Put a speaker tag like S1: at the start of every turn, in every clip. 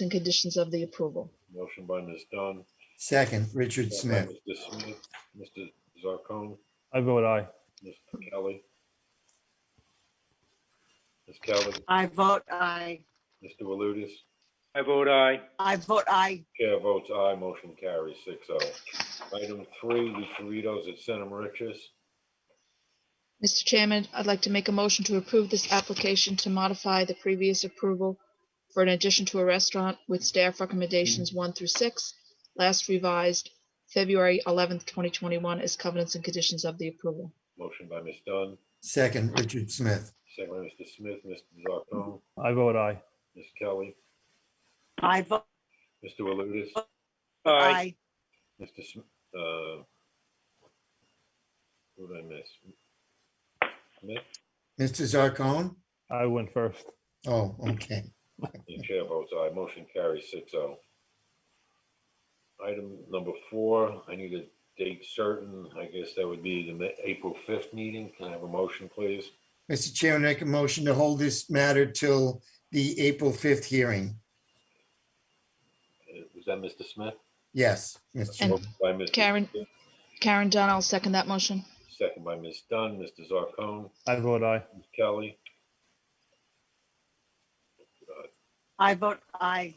S1: and conditions of the approval.
S2: Motion by Ms. Dunn.
S3: Second, Richard
S2: second
S3: Smith.
S2: by Mr. Smith. Mr. Zarcone,
S4: I vote aye.
S2: Mr. Kelly. Ms. Kelly,
S5: I vote aye.
S2: Mr. Walutis,
S6: I vote aye.
S5: I vote aye.
S2: chair votes aye, motion carries six oh. Item three, the Doritos at Center Riches.
S1: Mr. Chairman, I'd like to make a motion to approve this application to modify the previous approval for an addition to a restaurant with staff recommendations one through six, last revised February eleventh, twenty twenty-one as covenants and conditions of the approval.
S2: Motion by Ms. Dunn,
S3: Second, Richard Smith.
S2: second by Mr. Smith, Mr. Zarcone,
S4: I vote aye.
S2: Ms. Kelly,
S5: I vote
S2: Mr. Walutis,
S6: Aye.
S5: aye.
S2: Mr. Sm- uh, who did I miss? Smith?
S3: Mr. Zarcone?
S4: I went first.
S3: Oh, okay.
S2: The chair votes aye. Motion carries six oh. Item number four, I need a date certain. I guess that would be the Ma- April fifth meeting. Can I have a motion, please?
S3: Mr. Chairman, I make a motion to hold this matter till the April 5th hearing.
S2: Uh, Was that Mr. Smith?
S3: Yes, Mr. Chairman.
S2: Motion By Mr.
S1: Karen.
S2: Smith,
S1: Karen Dunn, I'll second that motion.
S2: Second by Ms. Dunn, Mr. Zarcone,
S4: I vote aye.
S2: Ms. Kelly,
S5: I vote aye.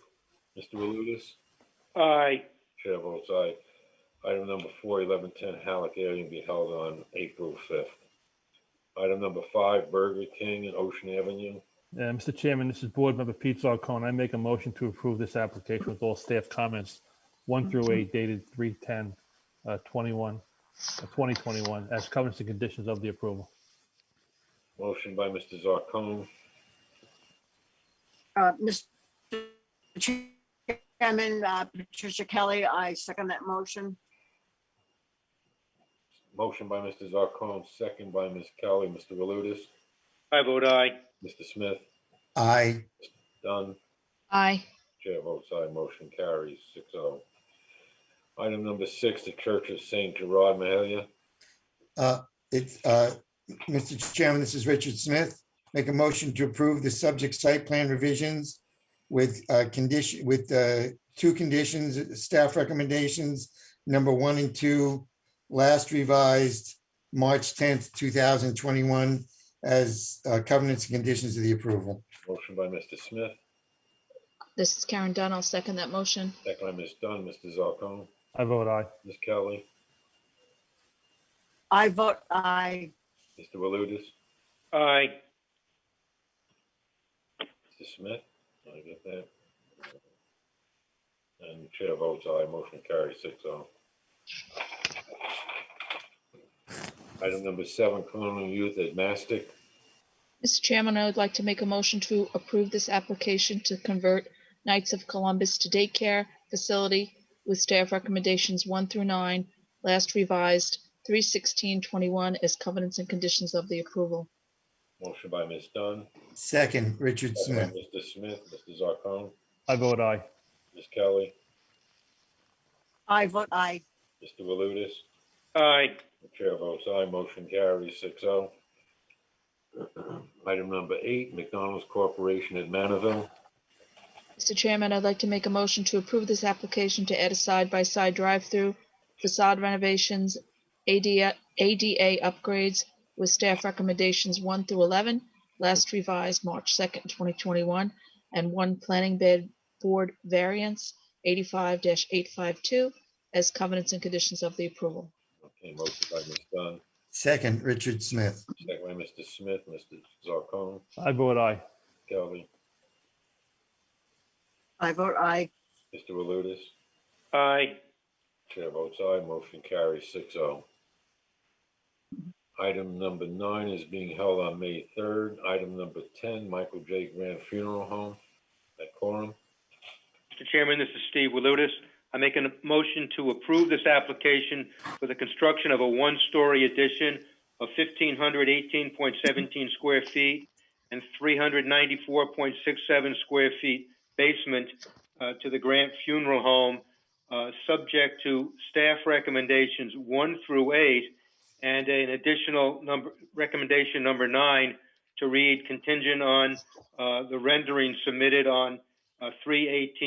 S2: Mr. Walutis.
S6: Aye.
S2: Chair votes aye. Item number four, eleven ten Halleck Avenue be held on April fifth. Item number five, Burger King and Ocean Avenue.
S4: Uh, Mr. Chairman, this is Board Member Pete Zarcone. I make a motion to approve this application with all staff comments, one through eight dated 310, uh, 21, uh, 2021, as covenants and conditions of the approval.
S2: Motion by Mr. Zarcone,
S5: Uh, Mr. Chairman, uh, Patricia Kelly, I second that motion.
S2: Motion by Mr. Zarcone, second by Ms. Kelly, Mr. Walutis,
S6: I vote aye.
S2: Mr. Smith,
S3: Aye.
S2: Dunn,
S1: Aye.
S2: chair votes aye, motion carries six oh. Item number six, the Church of Saint Gerard Mahalia.
S3: Uh, It's, uh, Mr. Chairman, this is Richard Smith. Make a motion to approve the subject site plan revisions with uh, condition, with uh, two conditions, staff recommendations, number one and two, last revised March 10th, 2021, as uh, covenants and conditions of the approval.
S2: Motion by Mr. Smith,
S1: This is Karen Dunn, I'll second that motion.
S2: second by Ms. Dunn, Mr. Zarcone,
S4: I vote aye.
S2: Ms. Kelly,
S5: I vote aye.
S2: Mr. Walutis,
S6: Aye.
S2: Mr. Smith, I get that. And chair votes aye, motion carries six oh. Item number seven, Colonial Youth at Mastic.
S1: Mr. Chairman, I would like to make a motion to approve this application to convert Knights of Columbus to daycare facility with staff recommendations one through nine, last revised three sixteen twenty-one as covenants and conditions of the approval.
S2: Motion by Ms. Dunn,
S3: Second, Richard
S2: second by
S3: Smith.
S2: Mr. Smith, Mr. Zarcone,
S4: I vote aye.
S2: Ms. Kelly,
S5: I vote aye.
S2: Mr. Walutis.
S6: Aye.
S2: The chair votes aye, motion carries six oh. Item number eight, McDonald's Corporation at Manorville.
S1: Mr. Chairman, I'd like to make a motion to approve this application to add a side-by-side drive-through facade renovations, ADA, ADA upgrades with staff recommendations one through eleven, last revised March second, twenty twenty-one, and one planning bid board variance eighty-five eight five two as covenants and conditions of the approval.
S2: Okay, motion by Ms. Dunn,
S3: Second, Richard Smith.
S2: second by Mr. Smith, Mr. Zarcone,
S4: I vote aye.
S2: Kelly,
S5: I vote aye.
S2: Mr. Walutis.
S6: Aye.
S2: Chair votes aye, motion carries six oh. Item number nine is being held on May third. Item number ten, Michael J. Grant Funeral Home at Corum.
S6: Mr. Chairman, this is Steve Walutis. I make a motion to approve this application for the construction of a one-story addition of 1,518.17 square feet and 394.67 square feet basement uh, to the Grant Funeral Home, uh, subject to staff recommendations one through eight and an additional number, recommendation number nine to read contingent on uh, the rendering submitted on uh, 318.